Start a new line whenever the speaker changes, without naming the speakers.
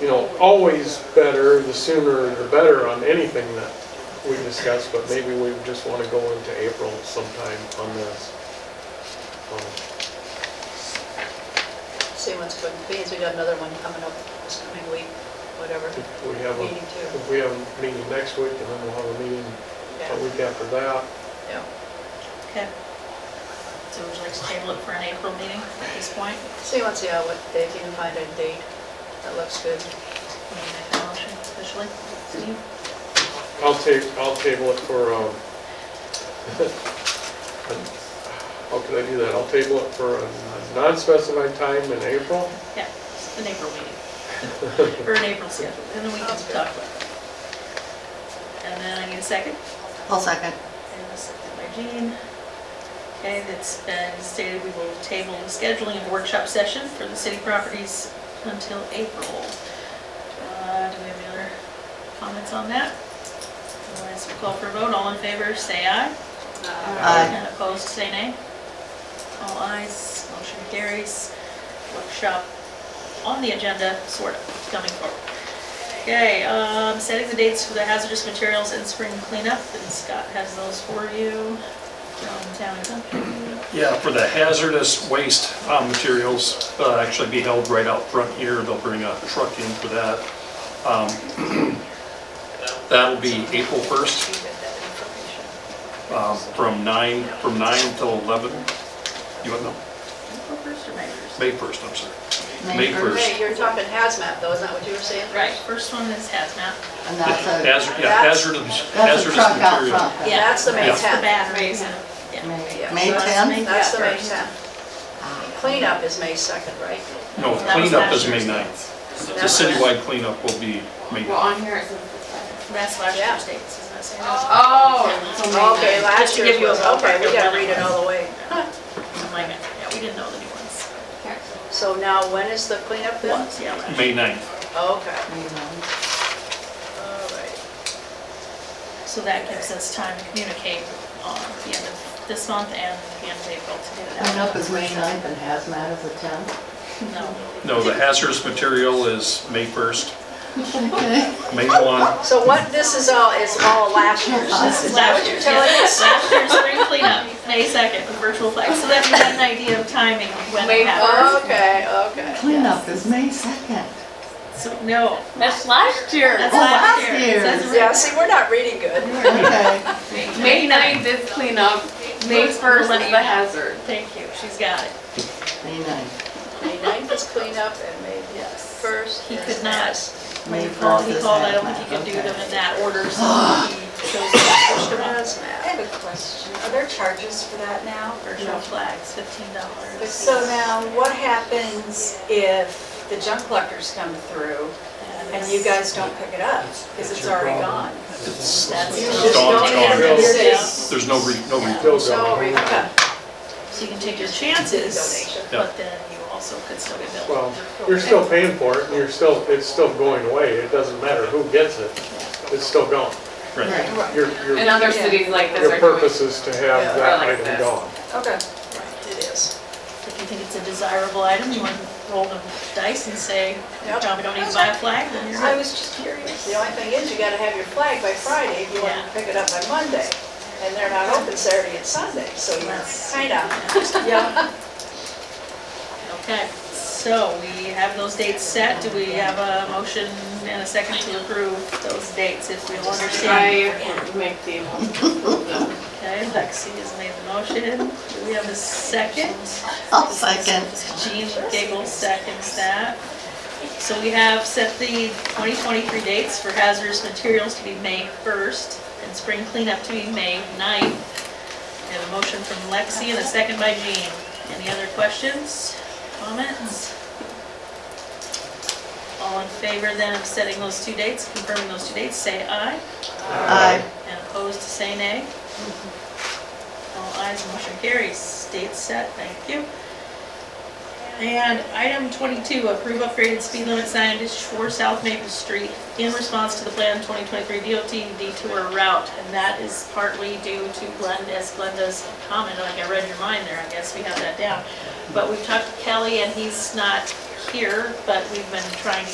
you know, always better, the sooner the better on anything that we discuss, but maybe we just want to go into April sometime on this. Um,
See what's good, because we got another one coming up this coming week, whatever.
If we have, a-
Meeting too.
if we have a meeting next week, and then we'll have a meeting
Yeah,
a week after that.
yeah.
Okay. So would you like to table it for an April meeting at this point?
See what's, yeah, what, if you can find a date that looks good.
Can you make that motion officially? Steve?
I'll ta, I'll table it for, um, how could I do that? I'll table it for a non-specified time in April.
Yeah, it's an April meeting. Or an April schedule, and then we can
Sounds good.
talk about it. And then I need a second.
I'll second.
And a second by Jean. Okay, that's been stated, we will table the scheduling of workshop session for the city properties until April. Uh, Do we have any other comments on that? Otherwise, we'll call for a vote, all in favor, say aye.
Aye.
And opposed, say nay. All ayes, motion carries. Workshop on the agenda, sort of, coming forward. Okay, um, setting the dates for the hazardous materials and spring cleanup, and Scott has those for you. From town and country.
Yeah, for the hazardous waste uh, materials, uh, actually be held right out front here. They'll bring a truck in for that. Um, That'll be April 1st,
You get that information.
um, from 9, from 9 till 11. You want, no,
April first or May first?
May 1st, I'm sorry.
May
May first.
Hey, you're talking hazmat though, isn't that what you were saying?
Right, first one is hazmat.
And that's a,
Hazard, yeah, hazardous,
that's a
hazardous
truck out
material.
front.
Yeah.
That's the May
Yeah.
The
10th.
bath raisin. Yeah.
May
Yeah,
May
so
that's
10?
That's the May
first.
10th. Cleanup is May 2nd, right?
No,
That was
cleanup
last
is
year's
May 9th. The
That was-
citywide cleanup will be May 9th.
on here it says it's expired.
That's last
Yeah.
year's dates, isn't that saying? that's-
Oh, it's only
Okay,
nine.
Just
last
to
year's
give you a
was, okay, we
ballpark of
gotta
when
read
it
it all the way.
Oh my God, yeah, we didn't know the new ones.
Okay.
So now when is the cleanup then?
Ones, yeah, last year.
May 9th.
Okay,
May ninth.
all right.
So that gives us time to communicate on the end of this month and the end of April to get it out.
Cleanup is May 9th and hazmat is the 10th.
No.
No, the hazardous material is May 1st, May 1.
So what, this is all, is all last year's, this is what
Last
you're
year's,
telling
yeah,
us?
last year's spring cleanup, May 2nd, the virtual flag. So that you have an idea of timing when it happens.
Okay, okay.
Cleanup is May 2nd.
So, no,
That's last year.
that's
Oh,
last
last
year.
year's.
So that's
Yeah, see, we're not reading good.
Okay.
May 9th is cleanup, May 1st is the hazard.
Thank you, she's got it.
May 9th.
May 9th is cleanup and May
Yes.
1st
He
is
could not, when
May
he called,
1st
he
is
called, I don't
hazmat,
think he could do
okay.
them in that order, so he chose to push them up.
hazmat.
I have a question. Are there charges for that now?
Virtual flags, fifteen dollars.
So now, what happens if the junk collectors come through and you guys don't pick it up? Because it's already gone.
It's
That's-
You
It's
just
gone,
don't
it's gone.
have it,
Bills.
it's-
There's no, re- no, re-
Still
So
going.
we-
Okay.
So you can take your chances,
Donation.
but then you also could still get billed.
Well, you're still paying for it, and you're still, it's still going away, it doesn't matter who gets it, it's still gone.
right.
Right.
Your, your,
And other cities like this
your
are doing.
purpose is to have that
Yeah.
item gone.
Okay.
It is.
If you think it's a desirable item, you want to roll the dice and say, you
Yep.
probably don't need to buy a flag, then you're
I
not.
was just curious.
The only thing is, you gotta have your flag by Friday if you want
Yeah.
to pick it up by Monday. And they're not open Saturday and Sunday, so you're
Yes.
kinda,
Yeah.
Okay, so we have those dates set. Do we have a motion and a second to approve those dates if we all understand?
I make the
Okay, Lexi has made the motion. Do we have a second?
I'll second.
Jean Gable seconds that. So we have set the 2023 dates for hazardous materials to be May 1st and spring cleanup to be May 9th. We have a motion from Lexi and a second by Jean. Any other questions, comments? All in favor then of setting those two dates, confirming those two dates, say aye.
Aye.
And opposed, say nay. All ayes, motion carries. Date set, thank you. And item 22, approve upgraded speed limit signage for South Maple Street in response to the Plan 2023 DOT detour route. And that is partly due to Glenda's, Glenda's comment, like I read your mind there, I guess we have that down. But we've talked to Kelly and he's not here, but we've been trying to